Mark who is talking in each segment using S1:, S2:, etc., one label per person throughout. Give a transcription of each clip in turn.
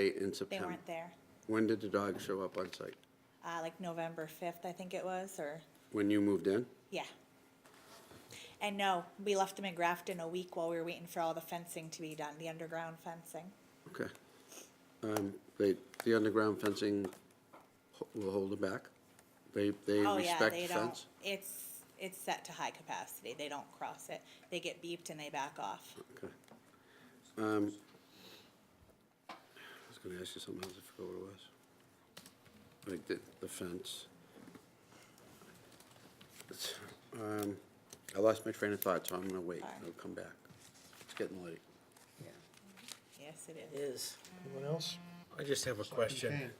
S1: late in
S2: They
S1: September.
S2: weren't there,
S1: When did the dog show up on site?
S2: uh, like November fifth, I think it was, or,
S1: When you moved in?
S2: yeah. And no, we left them in Grafton a week while we were waiting for all the fencing to be done, the underground fencing.
S1: Okay. Um, They, the underground fencing ho- will hold it back? They, they
S2: Oh, yeah,
S1: respect
S2: they
S1: the
S2: don't,
S1: fence?
S2: it's, it's set to high capacity, they don't cross it, they get beeped and they back off.
S1: Okay. Um, I was gonna ask you something else, I forgot what it was. Like the, the fence. It's, um, I lost my train of thought, so I'm gonna wait,
S2: Alright.
S1: I'll come back. It's getting late.
S2: Yes, it is.
S3: Is.
S4: Anyone else?
S5: I just have a question.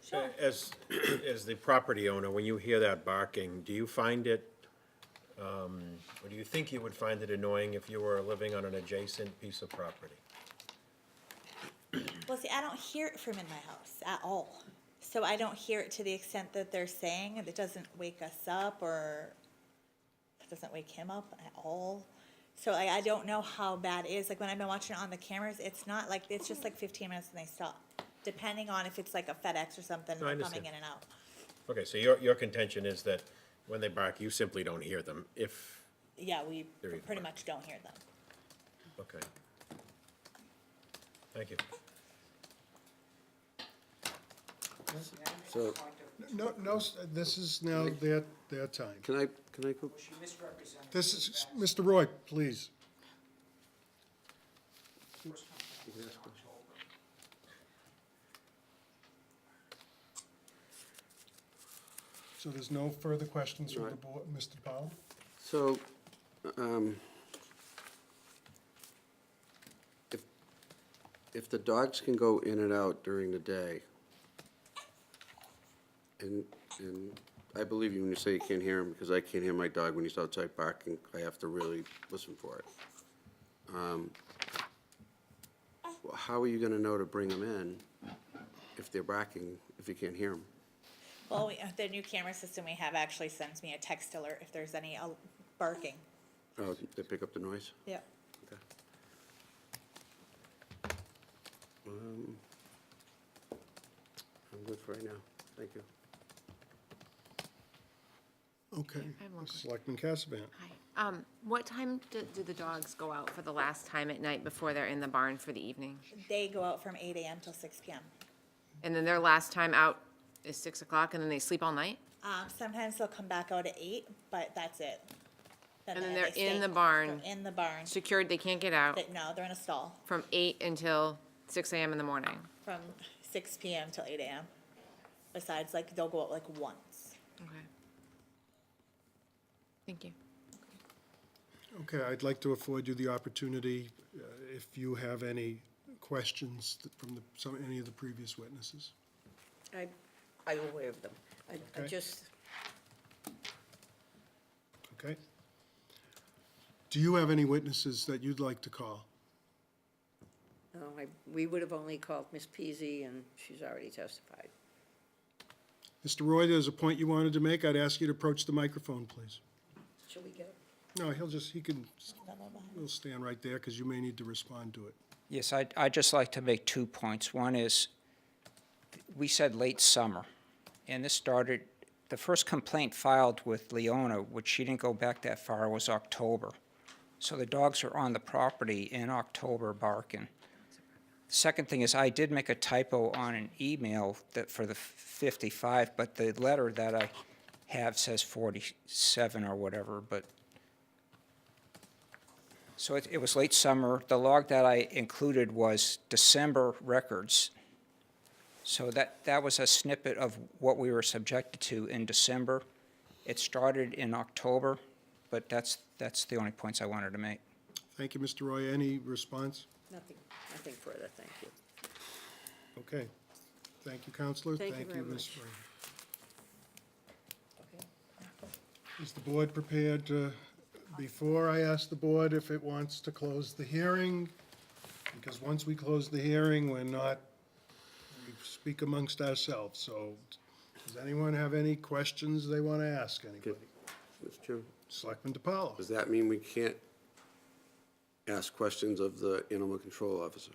S5: As, as the property owner, when you hear that barking, do you find it, um, or do you think you would find it annoying if you were living on an adjacent piece of property?
S2: Well, see, I don't hear it from in my house at all. So I don't hear it to the extent that they're saying, and it doesn't wake us up or it doesn't wake him up at all. So I, I don't know how bad it is. Like when I've been watching it on the cameras, it's not like, it's just like fifteen minutes and they stop. Depending on if it's like a FedEx or something,
S5: No, I
S2: they're coming
S5: understand.
S2: in and out.
S5: Okay, so your, your contention is that when they bark, you simply don't hear them, if,
S2: Yeah, we
S5: There you
S2: pretty
S5: go.
S2: much don't hear them.
S5: okay. Thank you.
S1: So,
S4: No, no, s- this is now their, their time.
S1: can I, can I go?
S4: This is, Mr. Roy, please. So there's no further questions from the board, Mr. Powell?
S1: So, um, if, if the dogs can go in and out during the day, and, and I believe you when you say you can't hear him, because I can't hear my dog when he's outside barking, I have to really listen for it. Um, well, How are you gonna know to bring him in if they're barking, if you can't hear him?
S2: Well, we, uh, the new camera system we have actually sends me a text alert if there's any al- barking.
S1: Oh, they pick up the noise?
S2: Yep.
S1: Okay. Um, I'm good for right now. Thank you.
S4: Okay.
S6: I have one
S4: Selectman Cassavant.
S6: Hi. Um, what time do, do the dogs go out for the last time at night before they're in the barn for the evening?
S2: They go out from eight AM till six PM.
S6: And then their last time out is six o'clock and then they sleep all night?
S2: Um, sometimes they'll come back out at eight, but that's it.
S6: And then
S2: they-
S6: they're
S2: they
S6: in
S2: stay-
S6: the barn.
S2: They're in the barn.
S6: Secured, they can't get out
S2: They- No, they're in a stall
S6: from eight until six AM in the morning.
S2: from six PM till eight AM. Besides, like, they'll go out like once.
S6: Okay. Thank you.
S4: Okay, I'd like to afford you the opportunity, uh, if you have any questions th- from the, some, any of the previous witnesses.
S3: I, I'm aware of them. I, I
S4: Okay.
S3: just,
S4: Okay. Do you have any witnesses that you'd like to call?
S3: no, I, we would have only called Miss Peasy, and she's already testified.
S4: Mr. Roy, there's a point you wanted to make. I'd ask you to approach the microphone, please.
S3: Shall we get?
S4: No, he'll just, he can, he'll stand right there because you may need to respond to it.
S7: Yes, I'd, I'd just like to make two points. One is, we said late summer, and this started, the first complaint filed with Leona, which she didn't go back that far, was October. So the dogs are on the property in October barking. Second thing is, I did make a typo on an email that, for the 55, but the letter that I have says 47 or whatever, but so it, it was late summer. The log that I included was December records. So that, that was a snippet of what we were subjected to in December. It started in October, but that's, that's the only points I wanted to make.
S4: Thank you, Mr. Roy. Any response?
S3: Nothing, nothing further, thank you.
S4: Okay. Thank you, Counselor.
S3: Thank you very
S4: Ms.
S3: much.
S4: Spring.
S3: Okay.
S4: Is the board prepared to, before I ask the board if it wants to close the hearing? Because once we close the hearing, we're not, we speak amongst ourselves, so does anyone have any questions they want to ask anybody?
S1: Mr. Chairman,
S4: Selectman DiPaolo?
S1: does that mean we can't ask questions of the animal control officer?